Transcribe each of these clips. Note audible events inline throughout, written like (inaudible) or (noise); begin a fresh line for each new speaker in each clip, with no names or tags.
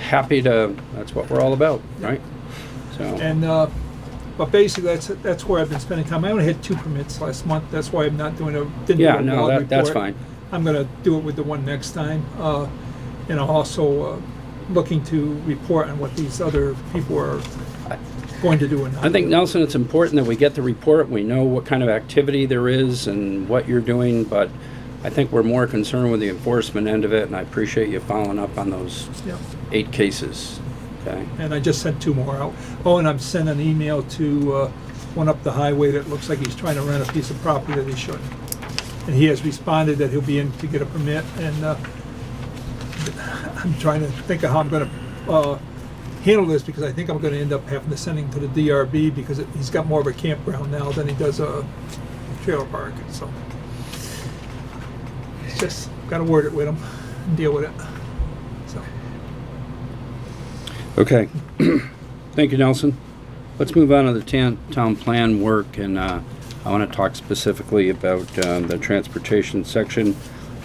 happy to, that's what we're all about, right? So,
And, uh, but basically, that's, that's where I've been spending time. I only had two permits last month, that's why I'm not doing a, didn't do a
yeah,
log
no, that,
report.
that's fine.
I'm gonna do it with the one next time, uh, and I'm also, uh, looking to report on what these other people are going to do and not.
I think
do.
Nelson, it's important that we get the report, we know what kind of activity there is and what you're doing, but I think we're more concerned with the enforcement end of it, and I appreciate you following up on those
Yeah.
eight cases, okay?
And I just sent two more out. Oh, and I'm sending an email to, uh, one up the highway that looks like he's trying to rent a piece of property that he shouldn't. And he has responded that he'll be in to get a permit, and, uh, (laughs) I'm trying to think of how I'm gonna, uh, handle this, because I think I'm gonna end up having to send him to the DRB, because it- he's got more of a campground now than he does a trailer park, so. It's just, gotta word it with him, and deal with it, so.
Okay. (clears throat) Thank you, Nelson. Let's move on to the tan- town plan work, and uh, I want to talk specifically about um, the transportation section.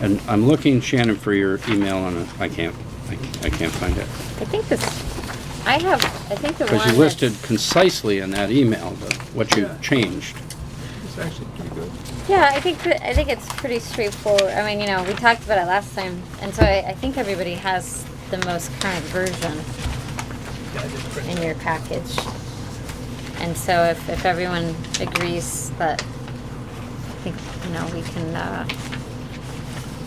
And I'm looking, Shannon, for your email, and I can't, I c- I can't find it.
I think this, I have, I think the one.
Because you
that's-
listed concisely in that email the- what you
Yeah.
changed.
It's actually pretty good.
Yeah, I think, that- I think it's pretty straightforward. I mean, you know, we talked about it last time, and so I, I think everybody has the most current version
Yeah, I did print
in your package. And so if, if everyone agrees that, I think, you know, we can, uh,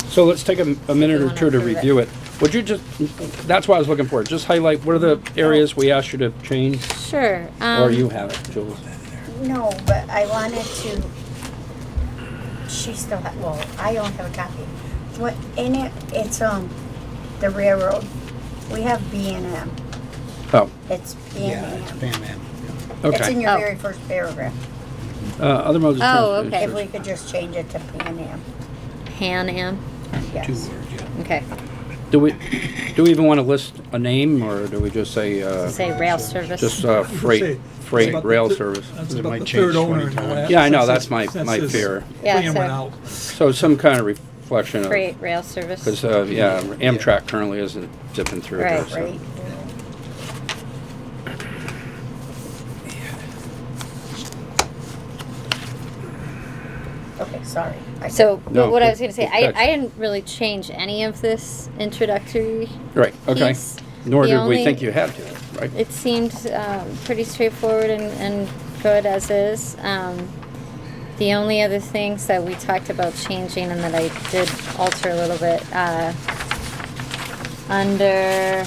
So let's take a m- a minute
You
or
wanna
two to
approve it.
review it. Would you just, that's what I was looking for, just highlight what are the areas we asked you to change?
sure, um.
Or you have it, Jules?
No, but I wanted to, she still had, well, I don't have a copy. What, in it, it's, um, the railroad, we have B and M,
Oh,
it's B and M. It's in
okay.
your
Oh.
very first paragraph,
Uh, Other modes of
Oh,
transportation.
okay.
if we could just change it to P and M,
Pan Am,
yes.
okay,
Do we, do we even want to list a name, or do we just say, uh,
say rail service.
just uh,
You could
freight,
say it's
freight,
about the
rail
thir-
service?
That's
It
about
might
the
change
third owner.
20 times.
in the
Yeah, I know,
last
that's my,
census.
my fear.
Yeah,
Plan
so-
went out.
So some kind of reflection of,
Freight rail service.
because, uh, yeah, Amtrak currently isn't zipping through there,
Right,
so.
Right, okay, sorry. I-
So,
No,
but what I was
good-
gonna say,
good
I,
catch.
I didn't really change any of this introductory.
Right, okay.
piece.
Nor
The
did we
only-
think you had to, right?
It seemed, um, pretty straightforward and, and good as is. Um, the only other things that we talked about changing and that I did alter a little bit, uh, under,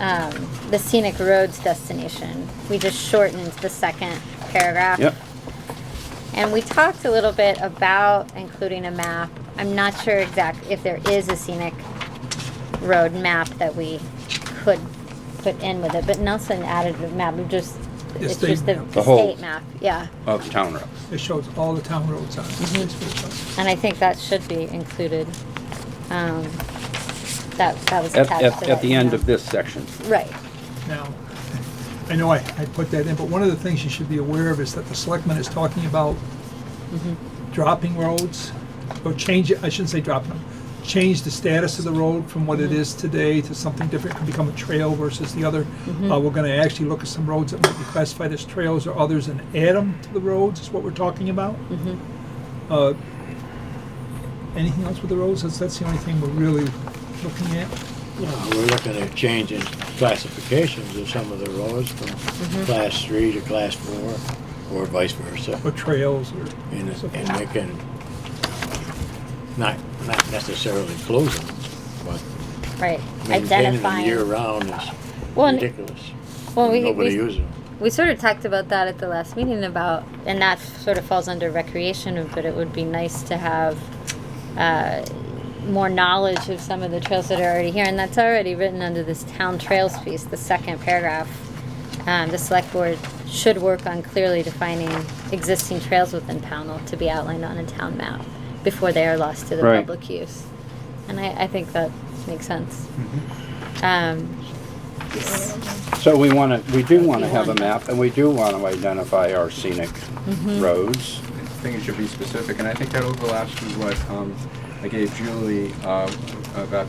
um, the scenic roads destination, we just shortened the second paragraph.
Yep,
And we talked a little bit about including a map. I'm not sure exact, if there is a scenic road map that we could put in with it, but Nelson added the map, it just,
The
it's
state
just the
map.
The
the
whole-
state map, yeah.
of Oh, town roads.
It shows all the town roads on it.
And I think that should be included. Um, that, that was
At,
attached to
at,
that.
at the end of
email.
this section.
Right,
Now, I know I, I put that in, but one of the things you should be aware of is that the selectman is talking about dropping roads, or change, I shouldn't say dropping them, change the status of the road from what it is today to something different, could become a trail versus the other. Uh, we're gonna actually look at some roads that might be classified as trails or others and add them to the roads, is what we're talking about. Uh, Anything else with the roads? That's, that's the only thing we're really looking at.
No, we're looking at changing classifications of some of the roads from
Mm-hmm.
class three to class four, or vice versa.
or trails or
And,
something.
and they can, not, not necessarily close them, but
right.
maintaining them year
Identifying.
round is
Well, and-
ridiculous.
Well, we,
Nobody
we,
uses them.
We sort of talked about that at the last meeting about, and that sort of falls under recreation, but it would be nice to have uh, more knowledge of some of the trails that are already here, and that's already written under this town trails piece, the second paragraph. Um, the select board should work on clearly defining existing trails within Pownell to be outlined on a town map before they are lost to the
Right.
public use. And I, I think that makes sense. Um,
So we want to, we do want to
you
have a
want-
map, and we do want to identify our scenic
Mm-hmm.
roads.
I think it should be specific, and I think that overlaps with what um, I gave Julie uh, about